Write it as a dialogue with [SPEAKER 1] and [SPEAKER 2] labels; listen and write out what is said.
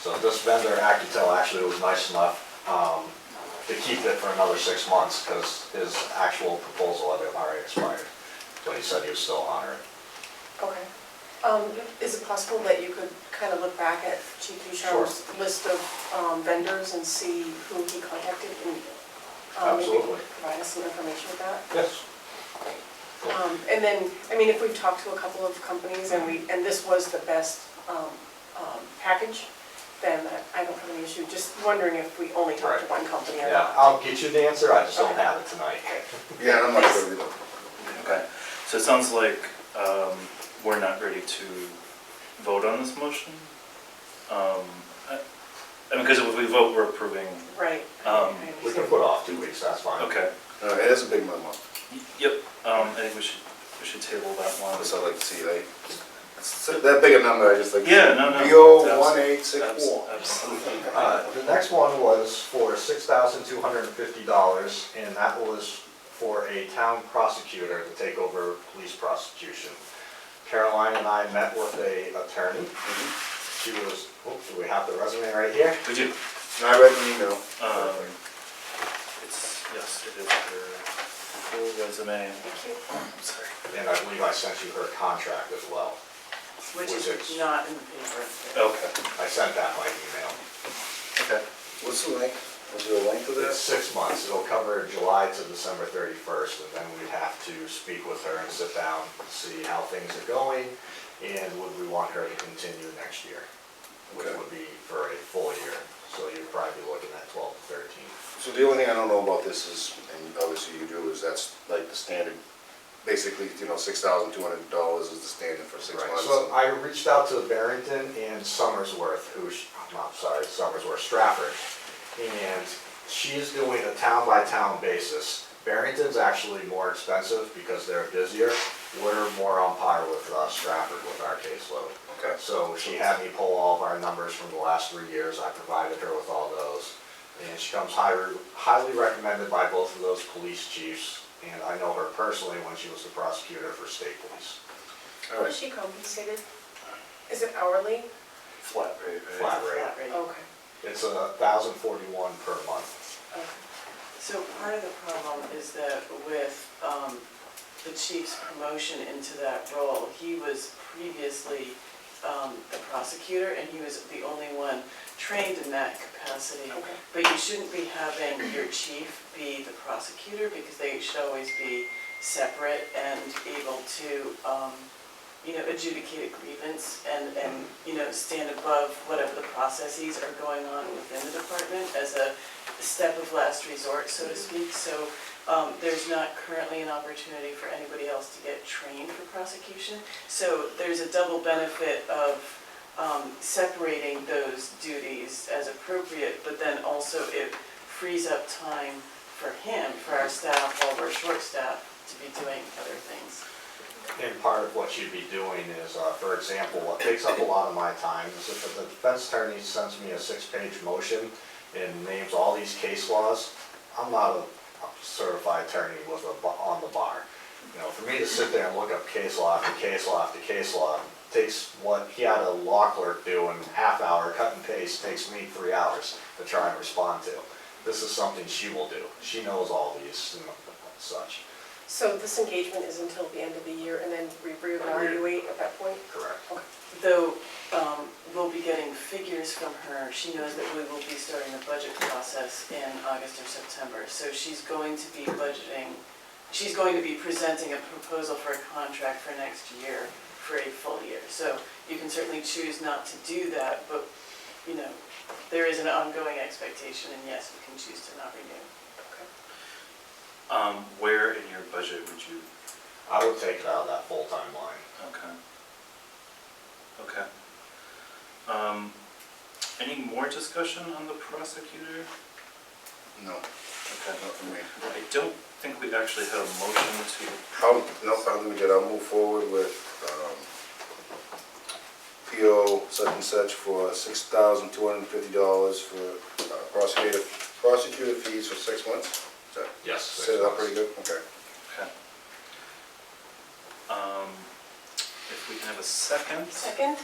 [SPEAKER 1] So this vendor, Accutel, actually was nice enough um, to keep it for another six months because his actual proposal had already expired. But he said he was still honored.
[SPEAKER 2] Okay. Um, is it possible that you could kind of look back at Chief Ducharme's list of um, vendors and see who he contacted and um, maybe
[SPEAKER 1] Absolutely.
[SPEAKER 2] provide us some information with that?
[SPEAKER 1] Yes. Cool.
[SPEAKER 2] Um, and then, I mean, if we've talked to a couple of companies and
[SPEAKER 1] Mm-hmm.
[SPEAKER 2] we, and this was the best, um, um, package, then I don't have any issue, just wondering if we only talked to
[SPEAKER 1] Right.
[SPEAKER 2] one company or
[SPEAKER 1] Yeah,
[SPEAKER 2] not.
[SPEAKER 1] I'll get you the answer, I just don't have it tonight.
[SPEAKER 3] Yeah, and I'm not sure either.
[SPEAKER 4] Okay, so it sounds like um, we're not ready to vote on this motion. Um, I I mean, because if we vote, we're approving,
[SPEAKER 2] Right.
[SPEAKER 4] Um,
[SPEAKER 2] I
[SPEAKER 1] We can
[SPEAKER 2] understand.
[SPEAKER 1] put off two weeks, that's fine.
[SPEAKER 4] okay.
[SPEAKER 3] Uh, It is a big memo,
[SPEAKER 4] Y- Yep, um, I think we should, we should table that one.
[SPEAKER 3] that's what I like to see, like, it's that big a number, I just like.
[SPEAKER 4] Yeah, no, no.
[SPEAKER 3] BO one eight six
[SPEAKER 4] Abs-
[SPEAKER 3] four.
[SPEAKER 4] Absolutely.
[SPEAKER 1] Uh, The next one was for six thousand two hundred and fifty dollars, and that was for a town prosecutor to take over police prosecution. Caroline and I met with a attorney. She was, oh, do we have the resume right here?
[SPEAKER 4] We do.
[SPEAKER 3] And I read an email.
[SPEAKER 4] Um, It's, yes, it is her full resume.
[SPEAKER 2] Thank you.
[SPEAKER 4] I'm sorry.
[SPEAKER 1] And I believe I sent you her contract as well.
[SPEAKER 5] Which is
[SPEAKER 1] Which is- Oh,
[SPEAKER 5] not in the paper.
[SPEAKER 4] Okay,
[SPEAKER 1] I sent that by email.
[SPEAKER 4] okay.
[SPEAKER 3] What's the length? Was there a length of
[SPEAKER 1] It's
[SPEAKER 3] that?
[SPEAKER 1] six months, it'll cover July to December thirty-first, and then we'd have to speak with her and sit down, see how things are going, and would we want her to continue next year? Which
[SPEAKER 3] Okay.
[SPEAKER 1] would be for a full year, so you'd probably be looking at twelve to thirteen.
[SPEAKER 3] So the only thing I don't know about this is, and obviously you do, is that's like the standard, basically, you know, six thousand two hundred dollars is the standard for six
[SPEAKER 1] Right,
[SPEAKER 3] months.
[SPEAKER 1] so I reached out to Barrington and Summersworth, who's, I'm sorry, Summersworth, Stratford. And she's doing a town-by-town basis. Barrington's actually more expensive because they're busier. We're more on par with uh, Stratford with our caseload.
[SPEAKER 3] Okay.
[SPEAKER 1] So she had me pull all of our numbers from the last three years, I provided her with all those. And she comes highly, highly recommended by both of those police chiefs, and I know her personally when she was the prosecutor for state police.
[SPEAKER 3] All
[SPEAKER 2] Was
[SPEAKER 3] right.
[SPEAKER 2] she compensated? Is it hourly?
[SPEAKER 4] Flat rate, right?
[SPEAKER 1] Flat rate.
[SPEAKER 5] Flat rate.
[SPEAKER 2] Okay,
[SPEAKER 1] It's a thousand forty-one per month.
[SPEAKER 2] okay.
[SPEAKER 5] So part of the problem is that with um, the chief's promotion into that role, he was previously um, the prosecutor, and he was the only one trained in that capacity.
[SPEAKER 2] Okay.
[SPEAKER 5] But you shouldn't be having your chief be the prosecutor, because they should always be separate and able to, um, you know, adjudicate a grievance and, and, you know, stand above whatever the processes are going on within the department as a step of last resort, so to speak. So um, there's not currently an opportunity for anybody else to get trained for prosecution. So there's a double benefit of um, separating those duties as appropriate, but then also it frees up time for him, for our staff, while we're short-staffed, to be doing other things.
[SPEAKER 1] And part of what she'd be doing is, uh, for example, what takes up a lot of my time is if the defense attorney sends me a six-page motion and names all these case laws, I'm not a certified attorney with a, bu- on the bar. You know, for me to sit there and look up case law after case law after case law, takes what he had a law clerk do in half hour, cut and paste, takes me three hours to try and respond to. This is something she will do. She knows all these and such,
[SPEAKER 2] So this engagement is until the end of the year and then we reevaluate at that point?
[SPEAKER 1] correct?
[SPEAKER 2] Okay.
[SPEAKER 5] Though um, we'll be getting figures from her, she knows that we will be starting the budget process in August or September. So she's going to be budgeting, she's going to be presenting a proposal for a contract for next year for a full year. So you can certainly choose not to do that, but, you know, there is an ongoing expectation, and yes, you can choose to not renew.
[SPEAKER 4] Um, where in your budget would you
[SPEAKER 1] I would take it out of that full-time line.
[SPEAKER 4] Okay. Okay. Um, any more discussion on the prosecutor?
[SPEAKER 3] No,
[SPEAKER 4] Okay.
[SPEAKER 3] not for me.
[SPEAKER 4] I don't think we actually had a motion to,
[SPEAKER 3] How, no, I think we did, I'll move forward with, um, PO such and such for six thousand two hundred and fifty dollars for uh, prosecutor, prosecutor fees for six months. Is that-
[SPEAKER 1] Yes.
[SPEAKER 3] Set it up pretty good, okay.
[SPEAKER 4] okay. Um, if we can have a second?
[SPEAKER 2] Second?